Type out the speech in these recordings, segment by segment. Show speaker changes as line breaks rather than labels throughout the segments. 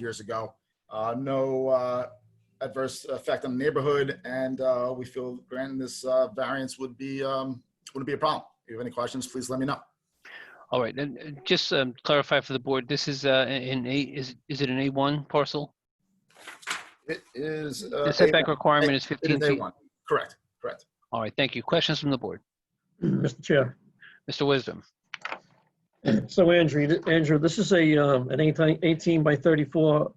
years ago. Uh, no uh, adverse effect on the neighborhood, and uh, we feel granting this uh, variance would be um, wouldn't be a problem. If you have any questions, please let me know.
All right, and uh, just um, clarify for the board, this is uh, an A, is, is it an A1 parcel?
It is uh,
The setback
A1.
requirement is
It
15
is
feet.
A1. Correct. Correct.
All right, thank you. Questions from the board?
Mr. Chair.
Mr. Wisdom?
So Andrew, th- Andrew, this is a, um, an 18 18 by 34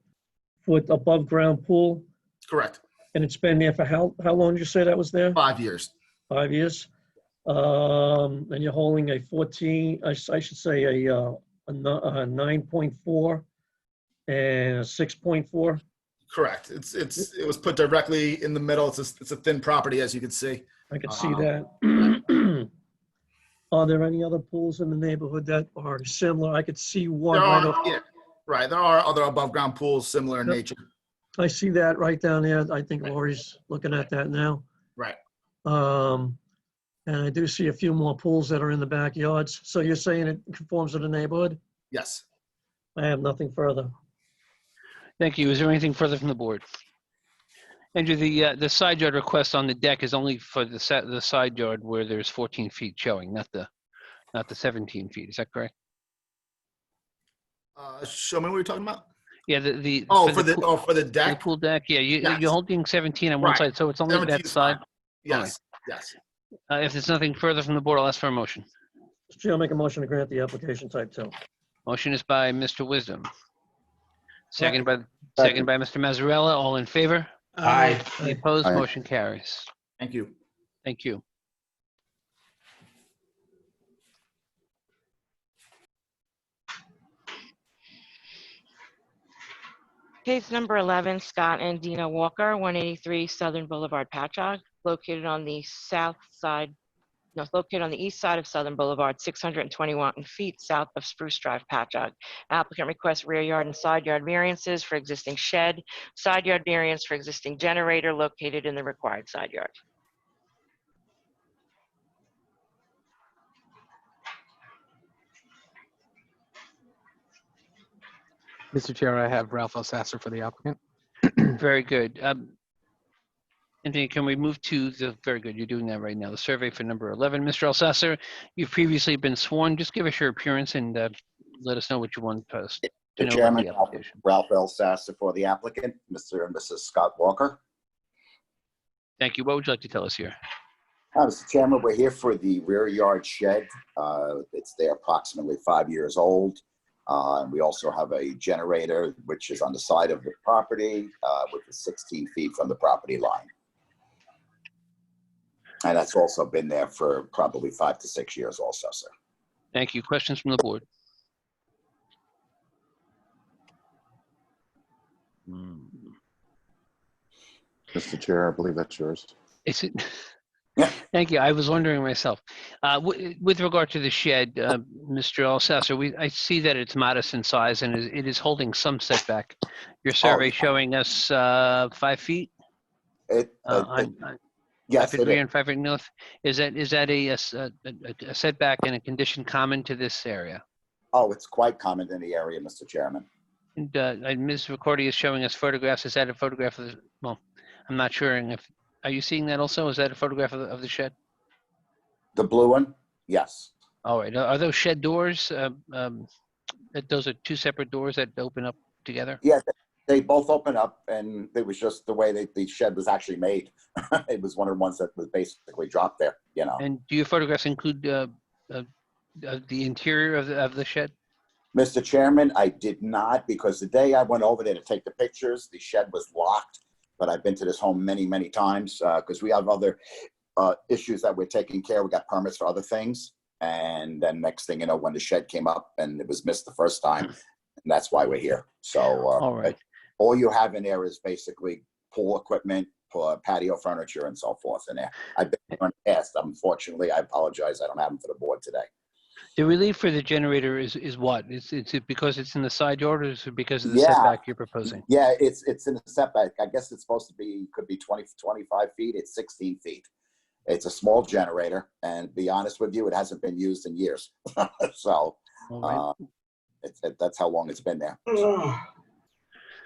foot above ground pool,
Correct.
and it's been there for how, how long did you say that was there?
Five years.
Five years? Um, and you're holding a 14, I, s- I should say a, uh, a ni- a 9.4 and a 6.4?
Correct. It's it's it was put directly in the middle. It's a, it's a thin property, as you can see.
I could see
Uh-huh.
that. Are there any other pools in the neighborhood that are similar? I could see one
There
right
are,
off.
yeah, right. There are other above ground pools similar in
Yep.
nature.
I see that right down there. I think
Right.
Lori's looking at that now.
Right.
Um, and I do see a few more pools that are in the backyards. So you're saying it conforms to the neighborhood?
Yes.
I have nothing further.
Thank you. Is there anything further from the board? Andrew, the, uh, the side yard request on the deck is only for the set, the side yard where there's 14 feet showing, not the, not the 17 feet. Is that correct?
Uh, show me what you're talking about.
Yeah, the, the.
Oh, for the
pool-
oh for the
for the
deck.
Pool deck, yeah, you,
Yes.
you're holding 17 on one
Right.
side, so it's only
17
that
is
side.
fine. Yes. Yes.
Uh, If there's nothing further from the board, I'll ask for a motion.
Mr. Chair, I'll make a motion to grant the application type two.
Motion is by Mr. Wisdom. Second
Second.
by, second by Mr. Mazzarella. All in favor?
Aye.
Any opposed?
Aye.
Motion carries.
Thank you.
Thank you.
Case number 11, Scott and Dina Walker, 183 Southern Boulevard, Patchogue, located on the south side, no, located on the east side of Southern Boulevard, 621 feet south of Spruce Drive, Patchogue. Applicant requests rear yard and side yard variances for existing shed, side yard variance for existing generator located in the required side yard.
Mr. Chair, I have Ralph Elsasser for the applicant.
Very good. Um, Anthony, can we move to the, very good, you're doing that right now, the survey for number 11. Mr. Alsasser, you've previously been sworn. Just give us your appearance and uh, let us know what you want us to know
Mr.
about
Chairman,
the
Ralph-
application.
Ralph L. Sasser for the applicant, Mr. and Mrs. Scott Walker.
Thank you. What would you like to tell us here?
Uh, Mr. Chairman, we're here for the rear yard shed. Uh, It's there approximately five years old. Uh, and We also have a generator, which is on the side of the property, uh, which is 16 feet from the property line. And that's also been there for probably five to six years also, sir.
Thank you. Questions from the board?
Mr. Chair, I believe that's yours.
Is it?
Yeah.
Thank you. I was wondering myself. Uh, wi- With regard to the shed, uh, Mr. Alsasser, we, I see that it's modest in size and it it is holding some setback.
Oh,
Your survey showing us uh, five feet?
It,
uh,
it-
on- on
yes,
Five feet
it
rear
is.
and five feet north? Is that, is that a- a s- a a- a setback and a condition common to this area?
Oh, it's quite common in the area, Mr. Chairman.
And uh, and Ms. Recordi is showing us photographs. Is that a photograph of the, well, I'm not sure if, are you seeing that also? Is that a photograph of the- of the shed?
The blue one? Yes.
All right, are are those shed doors, um, um, that those are two separate doors that open up together?
Yeah, th- they both open up, and it was just the way that the shed was actually made. it was one of the ones that was basically dropped there, you know.
And do your photographs include uh, uh, uh, the interior of the of the shed?
Mr. Chairman, I did not because the day I went over there to take the pictures, the shed was locked. But I've been to this home many, many times because we have other uh, issues that we're taking care. of. We got permits for other things, and then next thing you know, when the shed came up and it was missed the first time, and that's why we're here. So, uh,
All right.
all you have in there is basically pool equipment, pa- patio furniture and so forth in there. I've been there in the past, unfortunately, I apologize, I don't have them for the board today.
The relief for the generator is, is what? Is is it because it's in the side yard or is it because of the
Yeah.
setback you're proposing?
Yeah, it's, it's in the setback, I guess it's supposed to be, could be 20, 25 feet, it's 16 feet. It's a small generator, and be honest with you, it hasn't been used in years. So,
All right.
Mm-hmm.
uh, it's, it- that's how long it's been there.